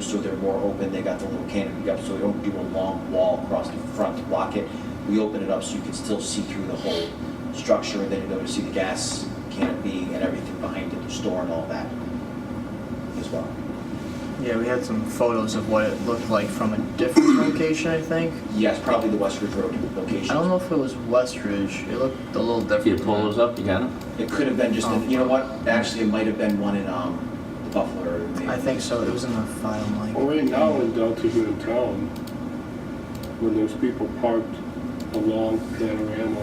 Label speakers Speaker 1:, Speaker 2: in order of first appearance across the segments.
Speaker 1: so they're more open, they got the little canopy up, so we don't do a long wall across the front to block it. We open it up so you can still see through the whole structure, and then you're able to see the gas canopy and everything behind it, the store and all that as well.
Speaker 2: Yeah, we had some photos of what it looked like from a different location, I think.
Speaker 1: Yes, probably the Westridge Road location.
Speaker 2: I don't know if it was Westridge. It looked a little different.
Speaker 3: If you
Speaker 2: than
Speaker 3: pull
Speaker 2: that.
Speaker 3: those up, you got them?
Speaker 1: It could have been just,
Speaker 2: Um,
Speaker 1: in- you know what, actually, it might have been one in, um, the Buffalo or maybe.
Speaker 2: I think so. It was in the file, Mike.
Speaker 4: Well, right now in downtown town, when there's people parked along Panorama,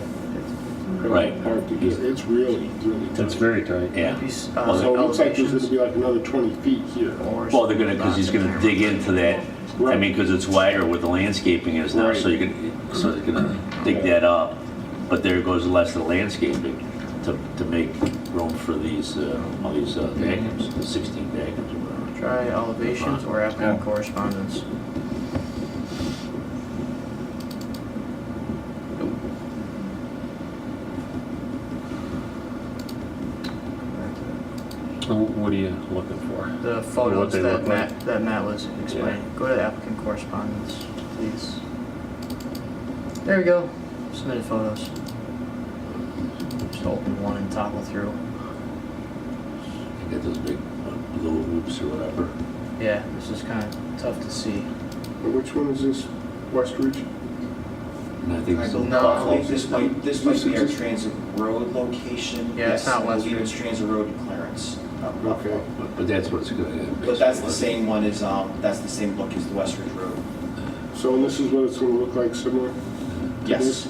Speaker 4: they're all
Speaker 3: Right.
Speaker 4: parked together, it's really, really tight.
Speaker 5: That's very tight.
Speaker 3: Yeah.
Speaker 2: Maybe s- uh,
Speaker 3: Well,
Speaker 4: So it looks like there's gonna be like another twenty feet here.
Speaker 2: Or
Speaker 3: Well, they're gonna, because he's gonna dig into that, I mean, because it's wider where the landscaping is now, so you
Speaker 4: Right.
Speaker 3: can, so they're gonna dig that up. But there goes less of the landscaping to, to make room for these, uh, all these uh, vacuums, the sixteen vacuums or whatever.
Speaker 2: Try elevations or applicant correspondence.
Speaker 5: And What are you looking for?
Speaker 2: The photos
Speaker 5: they
Speaker 2: that
Speaker 5: look like.
Speaker 2: Matt, that Matt was explaining. Go to applicant correspondence, please. There we go. Submitted photos. Just open one and toggle through.
Speaker 3: You Get those big uh, blue hoops or whatever.
Speaker 2: Yeah, this is kind of tough to see.
Speaker 4: But Which one is this, Westridge?
Speaker 3: And I think it's all
Speaker 2: No.
Speaker 1: I
Speaker 3: buffalo.
Speaker 1: believe this might, this might be our transit road location.
Speaker 2: Yeah,
Speaker 1: Yes,
Speaker 2: it's not
Speaker 1: I believe
Speaker 2: Westridge.
Speaker 1: it's transit road to Clarence. up Buffalo.
Speaker 4: Okay.
Speaker 3: But but that's what it's gonna.
Speaker 1: But that's the same one as, um, that's the same look as the Westridge Road.
Speaker 4: So and this is what it's gonna look like similar? to
Speaker 1: Yes,
Speaker 4: this?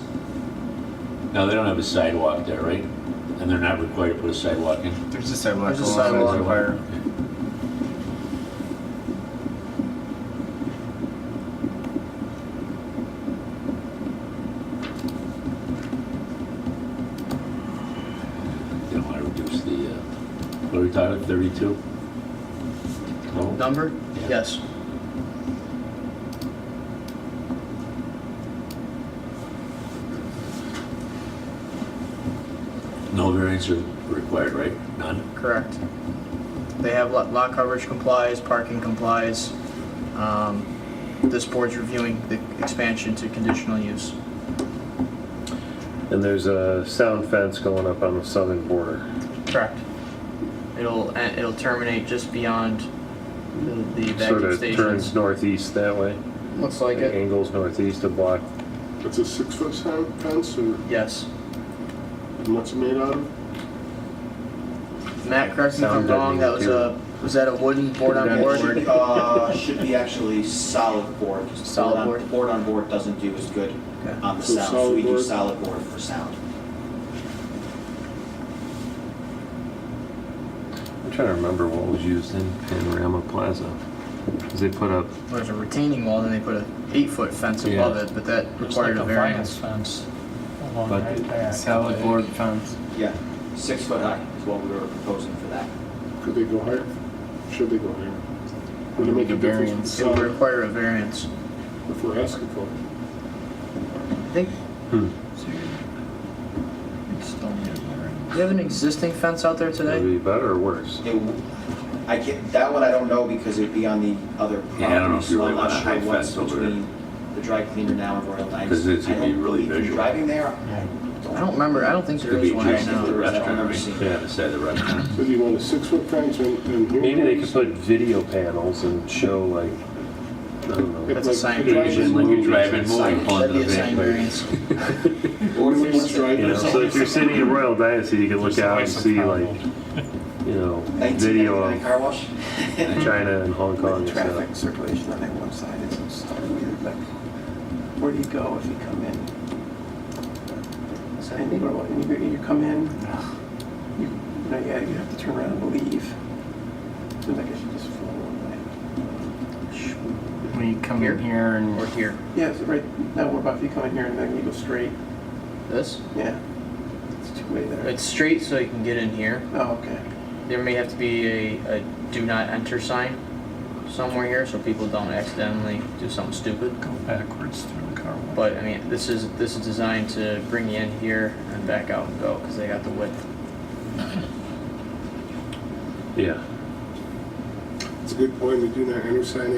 Speaker 3: No, they don't have a sidewalk there, right? And they're not required to put a sidewalk in?
Speaker 6: There's a sidewalk.
Speaker 2: There's a
Speaker 6: along the
Speaker 2: sidewalk.
Speaker 6: fire.
Speaker 3: They don't want to reduce the, uh, what are we talking, 32? No?
Speaker 2: Number?
Speaker 3: Yeah.
Speaker 2: Yes.
Speaker 3: No variance are required, right? None?
Speaker 2: Correct. They have lot, lot coverage complies, parking complies. Um, This board's reviewing the expansion to conditional use.
Speaker 5: And there's a sound fence going up on the southern border.
Speaker 2: Correct. It'll, eh, it'll terminate just beyond the- the
Speaker 5: Sort
Speaker 2: vacuum
Speaker 5: of turns
Speaker 2: stations.
Speaker 5: northeast that way.
Speaker 2: Looks like it.
Speaker 5: Angles northeast to block.
Speaker 4: It's a six-foot si- fence or
Speaker 2: Yes.
Speaker 4: and what's it made out of?
Speaker 2: Matt, correct me if I'm
Speaker 5: Sound
Speaker 2: wrong, that was a, was that a wooden board on
Speaker 5: That's-
Speaker 2: board?
Speaker 1: Should- uh, should be actually solid board. 'cause
Speaker 2: Solid
Speaker 1: on-
Speaker 2: board.
Speaker 1: Board on board doesn't do as good
Speaker 2: Okay.
Speaker 1: on the
Speaker 4: So
Speaker 1: sound, so we
Speaker 4: solid
Speaker 1: do
Speaker 4: board.
Speaker 1: solid board for sound.
Speaker 5: I'm trying to remember what was used in Panorama Plaza. 'Cause they put up,
Speaker 2: There's a retaining wall, then they put a eight-foot fence
Speaker 5: Yeah.
Speaker 2: above it, but that
Speaker 7: Looks like
Speaker 2: required
Speaker 7: a
Speaker 2: a
Speaker 7: vinyl
Speaker 2: variance.
Speaker 7: fence along
Speaker 5: But-
Speaker 7: right there.
Speaker 6: Salad board fence.
Speaker 1: Yeah, six foot high is what we were proposing for that.
Speaker 4: Could they go higher? Should they go higher? Would it make a difference?
Speaker 6: Variance.
Speaker 2: It would
Speaker 4: with the
Speaker 2: require a variance.
Speaker 4: sound If we're asking for it?
Speaker 2: I think
Speaker 5: hmm,
Speaker 7: It's still near there.
Speaker 2: Do you have an existing fence out there
Speaker 5: would it
Speaker 2: today?
Speaker 5: be better or worse?
Speaker 1: It w- I can't, that one I don't know because it'd be on the other property.
Speaker 3: Yeah, I don't know if you
Speaker 1: so
Speaker 3: really
Speaker 1: I'm not
Speaker 3: want a
Speaker 1: sure
Speaker 3: high
Speaker 1: what's
Speaker 3: fence over there.
Speaker 1: between The dry cleaner now and Royal Dynasty.
Speaker 3: 'Cause it's
Speaker 1: I
Speaker 3: gonna be
Speaker 1: don't
Speaker 3: really
Speaker 1: believe-
Speaker 3: visual.
Speaker 1: Driving there?
Speaker 2: I don't remember, I don't think there
Speaker 3: Could be
Speaker 2: is one right
Speaker 3: adjacent to the
Speaker 2: now.
Speaker 3: restaurant, right?
Speaker 1: Yeah.
Speaker 3: Yeah, beside the restaurant.
Speaker 4: So do you want a six-foot fence and, and here?
Speaker 5: Maybe they could put video panels and show like, I don't know.
Speaker 2: That's a sign.
Speaker 3: Just like you're driving, moving,
Speaker 1: Signage,
Speaker 3: pulling to
Speaker 2: That'd
Speaker 3: the
Speaker 2: be a sign
Speaker 3: van.
Speaker 2: variance.
Speaker 4: Or do we just drive
Speaker 5: You know,
Speaker 4: this?
Speaker 5: so if you're sitting in Royal Dynasty, you can look
Speaker 6: There's
Speaker 5: out and
Speaker 6: always a
Speaker 5: see
Speaker 6: problem.
Speaker 5: like, you know, video
Speaker 1: 1999 car
Speaker 5: of
Speaker 1: wash?
Speaker 5: China and Hong Kong and stuff.
Speaker 8: traffic circulation on that one side is so weird, like, where do you go if you come in? So I think, well, you, you come in, you, you know, yeah, you have to turn around and leave. Seems like I should just flow one way.
Speaker 6: When you come in here and
Speaker 2: Or here.
Speaker 8: Yeah, so right, now what about if you come in here and then you go straight?
Speaker 2: This?
Speaker 8: Yeah, it's two-way there.
Speaker 2: It's straight so you can get in here.
Speaker 8: Oh, okay.
Speaker 2: There may have to be a, a do not enter sign somewhere here so people don't accidentally do something stupid.
Speaker 7: Go backwards through the car wash.
Speaker 2: But I mean, this is, this is designed to bring you in here and back out and go because they got the width.
Speaker 5: Yeah.
Speaker 4: It's a good point, they do not enter sign